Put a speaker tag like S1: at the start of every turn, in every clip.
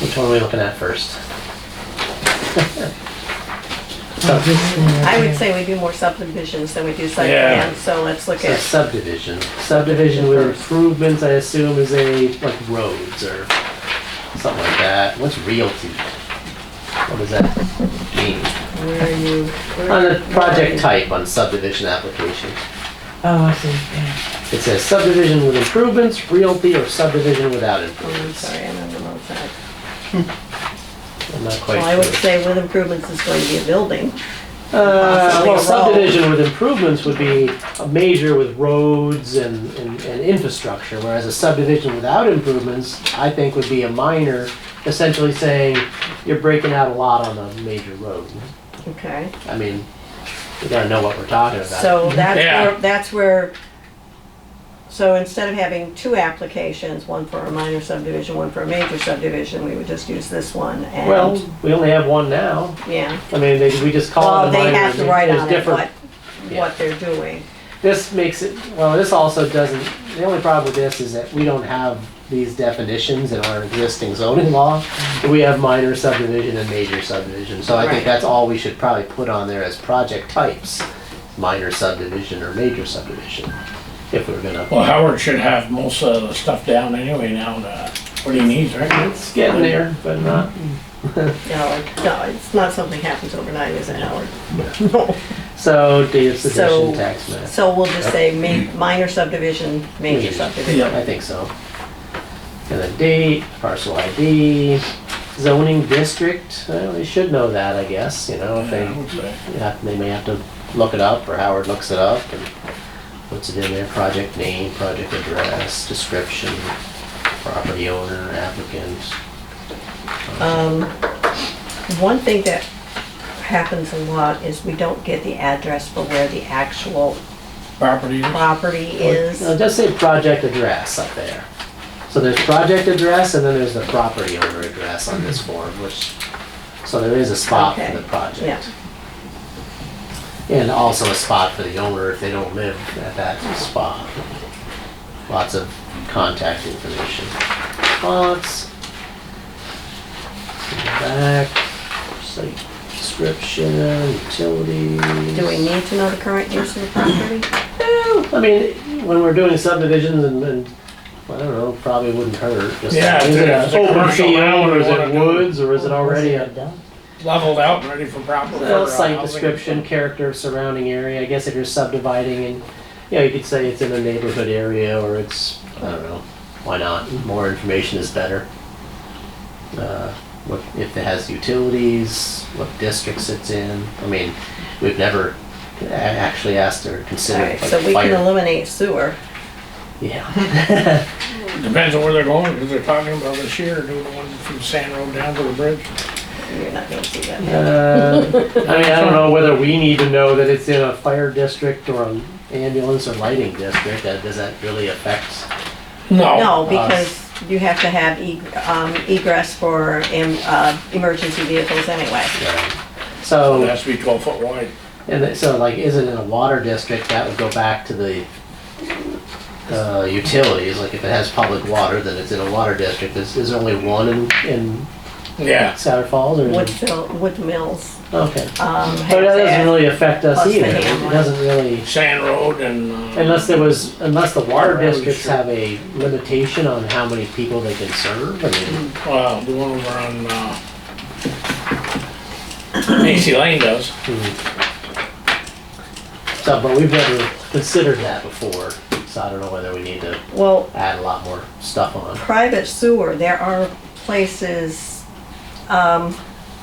S1: Which one are we looking at first?
S2: Oh, this thing right
S3: I would
S2: here.
S3: say we do more subdivisions than we do site
S4: Yeah.
S3: plans, so let's look
S1: So
S3: at,
S1: subdivision. Subdivision with improvements, I assume, is a, like roads or something like that. What's realty? What does that mean?
S3: where are you? where
S1: On
S3: are
S1: the
S3: you-
S1: project type on subdivision application,
S2: Oh, I see, yeah.
S1: it says subdivision with improvements, realty, or subdivision without
S3: Oh, I'm
S1: improvements.
S3: sorry, I'm on the wrong side.
S1: I'm not
S3: Well, I
S1: quite
S3: would
S1: sure.
S3: say with improvements is going to be a building.
S1: Uh,
S3: possibly
S1: well,
S3: a
S1: subdivision with improvements would be a major with roads and, and, and infrastructure, whereas a subdivision without improvements, I think would be a minor, essentially saying, you're breaking out a lot on a major road.
S3: Okay,
S1: I mean, we gotta know what we're talking about.
S3: so that's
S4: Yeah.
S3: where, that's where, so instead of having two applications, one for a minor subdivision, one for a major subdivision, we would just use this one and.
S1: Well, we only have one now.
S3: Yeah,
S1: I mean, they, we just call
S3: well,
S1: it a
S3: they
S1: minor.
S3: have to
S1: there's
S3: write on it
S1: different-
S3: what,
S1: Yeah.
S3: what they're doing.
S1: This makes it, well, this also doesn't, the only problem with this is that we don't have these definitions in our existing zoning law. We have minor subdivision and major subdivision, so I think
S3: Right.
S1: that's all we should probably put on there as project types. Minor subdivision or major subdivision, if we we're gonna,
S4: Well, Howard should have most of the stuff down anyway now, uh, what he needs, right?
S1: it's getting there, but not.
S3: No, it- no, it's not something happens overnight, is it, Howard?
S1: So, date of submission,
S3: So-
S1: tax map.
S3: So we'll just say ma- minor subdivision, major
S1: Major.
S3: subdivision.
S1: I think so. And the date, parcel ID, zoning district, well, they should know that, I guess, you know, if they,
S4: Yeah, I would say.
S1: you have- they may have to look it up, or Howard looks it up, and puts it in there, project name, project address, description, property owner, applicant.
S3: Um, One thing that happens a lot is we don't get the address for where the actual
S4: Property,
S3: property is.
S1: No, it does say project address up there. So there's project address, and then there's the property owner address on this form, which, so there is a spot
S3: Okay.
S1: for the project.
S3: Yeah,
S1: And also a spot for the owner if they don't live at that spot. Lots of contact information. Lots. Back, site description, utilities.
S3: do we need to know the current use of the property?
S1: Eh, I mean, when we're doing subdivisions and, and, I don't know, probably wouldn't hurt. just-
S4: Yeah,
S1: Is it
S4: if
S1: an
S4: it's a
S1: open
S4: commercial
S1: field
S4: now,
S1: or is
S4: what
S1: it
S4: do you
S1: woods or is it already a?
S4: leveled out, and ready for proper.
S1: Well,
S4: for, uh,
S1: site
S4: housing.
S1: description, character of surrounding area, I guess if you're subdividing and, you know, you could say it's in a neighborhood area or it's, I don't know, why not? More information is better. Uh, What, if it has utilities, what districts it's in, I mean, we've never a- actually asked or
S3: All
S1: considered
S3: right,
S1: like
S3: so we can
S1: fire.
S3: eliminate sewer.
S1: Yeah.
S4: Depends on where they're going, because they're talking about this year, doing the one from Sand Road down to the bridge.
S3: You're not gonna see that.
S1: Uh, I mean, I don't know whether we need to know that it's in a fire district or an ambulance or lighting district, that, does that really affect?
S4: No,
S1: Oh,
S3: No,
S1: uh,
S3: because you have to have e- um, egress for em- uh, emergency vehicles anyway.
S1: uh,
S4: it
S1: So,
S4: has to be twelve foot wide.
S1: and then- so like, is it in a water district, that would go back to the, uh, utilities, like if it has public water, then it's in a water district, is, is there only one in, in
S4: Yeah,
S1: Souter Falls, or? is it-
S3: Woodville, Wood Mills,
S1: Okay,
S3: um,
S1: but that doesn't
S3: has that.
S1: really affect us
S3: Plus the
S1: either, it
S3: Hamlet.
S1: doesn't really,
S4: Sand Road and. uh,
S1: unless there was, unless the water
S4: Water, I'm
S1: districts
S4: sure.
S1: have a limitation on how many people they can serve, I mean,
S4: Well, the one over on, uh, Macy Lane does.
S1: so, but we've never considered that before, so I don't know whether we need to
S3: Well,
S1: add a lot more stuff on,
S3: private sewer, there are places,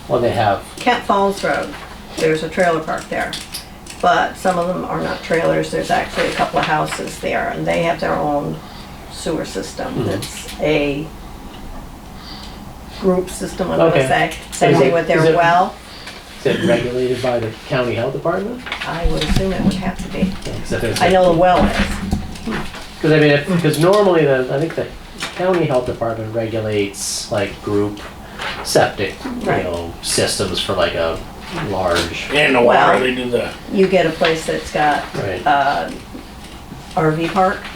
S1: well, they have
S3: Kent Falls Road, there's a trailer park there. But some of them are not trailers, there's actually a couple of houses there, and they have their own sewer
S1: Mm-hmm.
S3: system. That's a group system, I'm gonna
S1: Okay.
S3: say. Same
S1: Is
S3: thing
S1: it-
S3: with
S1: is
S3: their
S1: it-
S3: well,
S1: Is it regulated by the county health department?
S3: I would assume it would have to be. I
S1: Because
S3: know the well is.
S1: I mean, because normally the, I think the county health department regulates like group septic, you
S3: Right.
S1: know, systems for like a large,
S4: And the
S3: Well-
S4: water, they do the
S3: You get a place that's got
S1: right?
S3: uh, RV park,